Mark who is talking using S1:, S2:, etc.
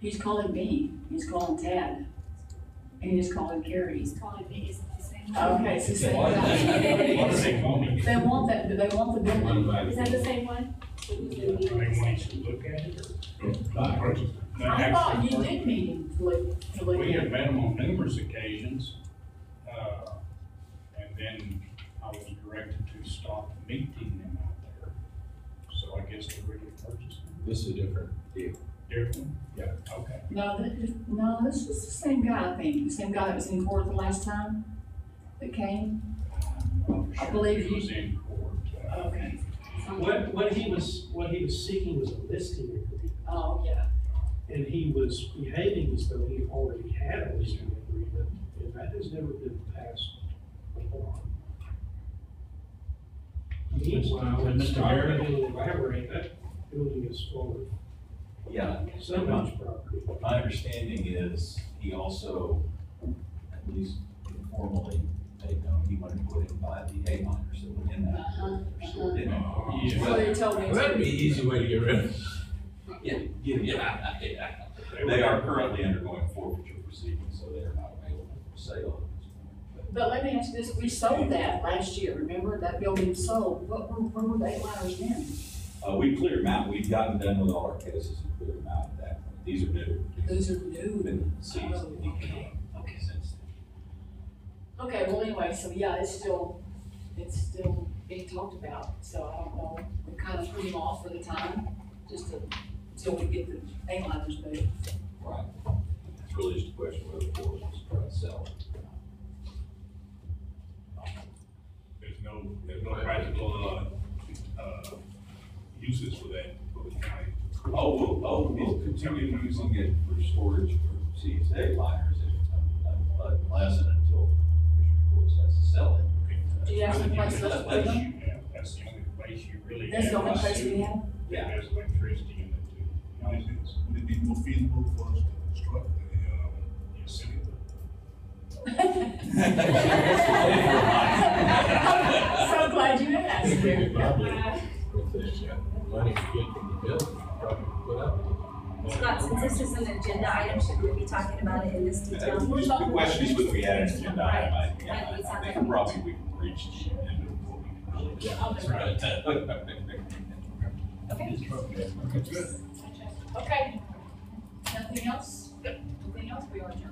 S1: He's calling me, he's calling Ted, and he's calling Carrie.
S2: He's calling me, is the same?
S1: Okay, so
S3: Why-
S1: say,
S3: Why does
S1: they
S3: they call me?
S1: want that, do they want the big one?
S2: Is that the same one?
S4: Do they want you to look at it or?
S3: Buy
S4: No,
S1: I thought you
S4: actually,
S1: did meet him to look, to look
S4: We
S1: at.
S4: have met him on numerous occasions, uh, and then I was directed to stop meeting them out there. So I guess they really purchased
S3: This is a different deal.
S4: different.
S3: Yeah.
S4: Okay.
S1: No, this, no, this is the same guy, I think, the same guy that was in court the last time that came.
S4: I'm not
S1: I believe
S4: sure if
S1: you-
S4: He was in court. uh,
S1: Okay.
S5: What, what he was, what he was seeking was a listing agreement,
S1: Oh, yeah.
S5: and he was behaving as though he already had a listing agreement, and that has never been passed upon. Meanwhile,
S3: Mr.
S5: it's
S3: Mayor?
S5: starting to elaborate, that building is full
S6: Yeah,
S5: of so much property.
S6: my understanding is he also, at least informally, made known he wanted to put in by the A miners that were in that
S1: Uh-huh.
S6: store, didn't he?
S4: Yeah.
S1: So they told me.
S3: Well, that'd be an easy way to get rid of.
S6: Yeah, yeah, yeah, yeah.
S4: were-
S6: They are currently undergoing forfeiture proceedings, so they are not available for sale at this point.
S1: But let me ask you this, we sold that last year, remember? That building sold, what, where, where were they liners then?
S6: But, Uh, we cleared them out, we've gotten done with all our cases and cleared them out at that point. These are new.
S1: Those are new.
S6: Been seized.
S1: Oh, okay.
S6: Okay, since then.
S1: Okay, well, anyway, so yeah, it's still, it's still being talked about, so I don't know. We kind of put them off for the time, just to, till we get the A liners moved.
S6: Right. It's really just a question whether the board wants to try to sell it or not.
S4: There's no, there's no practical, uh, uh, uses for that, for the county.
S6: Oh, we'll, oh, we'll continue using it for storage for CSA liners if, uh, unless and until Commissioner Court has to sell it.
S1: Do you have some place left for them?
S4: That's the only place you really.
S1: That's the only
S4: have
S1: place we have?
S6: Yeah.
S4: There's electricity in it too.
S7: Would it be- would it be more feasible for us to construct a, um,
S4: Yes, city.
S1: So glad you asked.
S3: uh, Money to get from the building, probably put up.
S2: Scott, since this is an agenda item, should we be talking about it in this detail?
S6: The question is whether we add an agenda item, I,
S2: Right.
S6: yeah, I think probably we've reached the end of what we can really. do.
S2: Okay. Okay.
S1: Okay. Nothing else? Nothing else? We are adjourned.